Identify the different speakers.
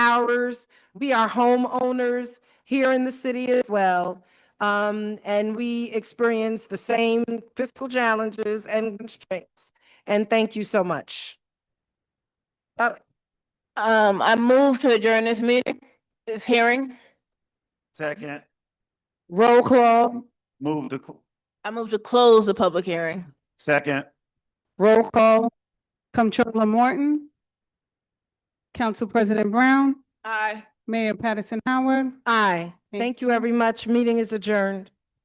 Speaker 1: hours. We are homeowners here in the city as well. Um, and we experience the same fiscal challenges and constraints. And thank you so much.
Speaker 2: Um, I move to adjourn this meeting, this hearing.
Speaker 3: Second,
Speaker 1: Roll call,
Speaker 3: move to, cl-
Speaker 2: I move to close the public hearing.
Speaker 3: second,
Speaker 1: roll call,
Speaker 4: Comptroller Morton. Council President Brown,
Speaker 2: Aye.
Speaker 4: Mayor Patterson Howard.
Speaker 1: aye.
Speaker 4: Thank
Speaker 1: Thank you very much. Meeting is adjourned.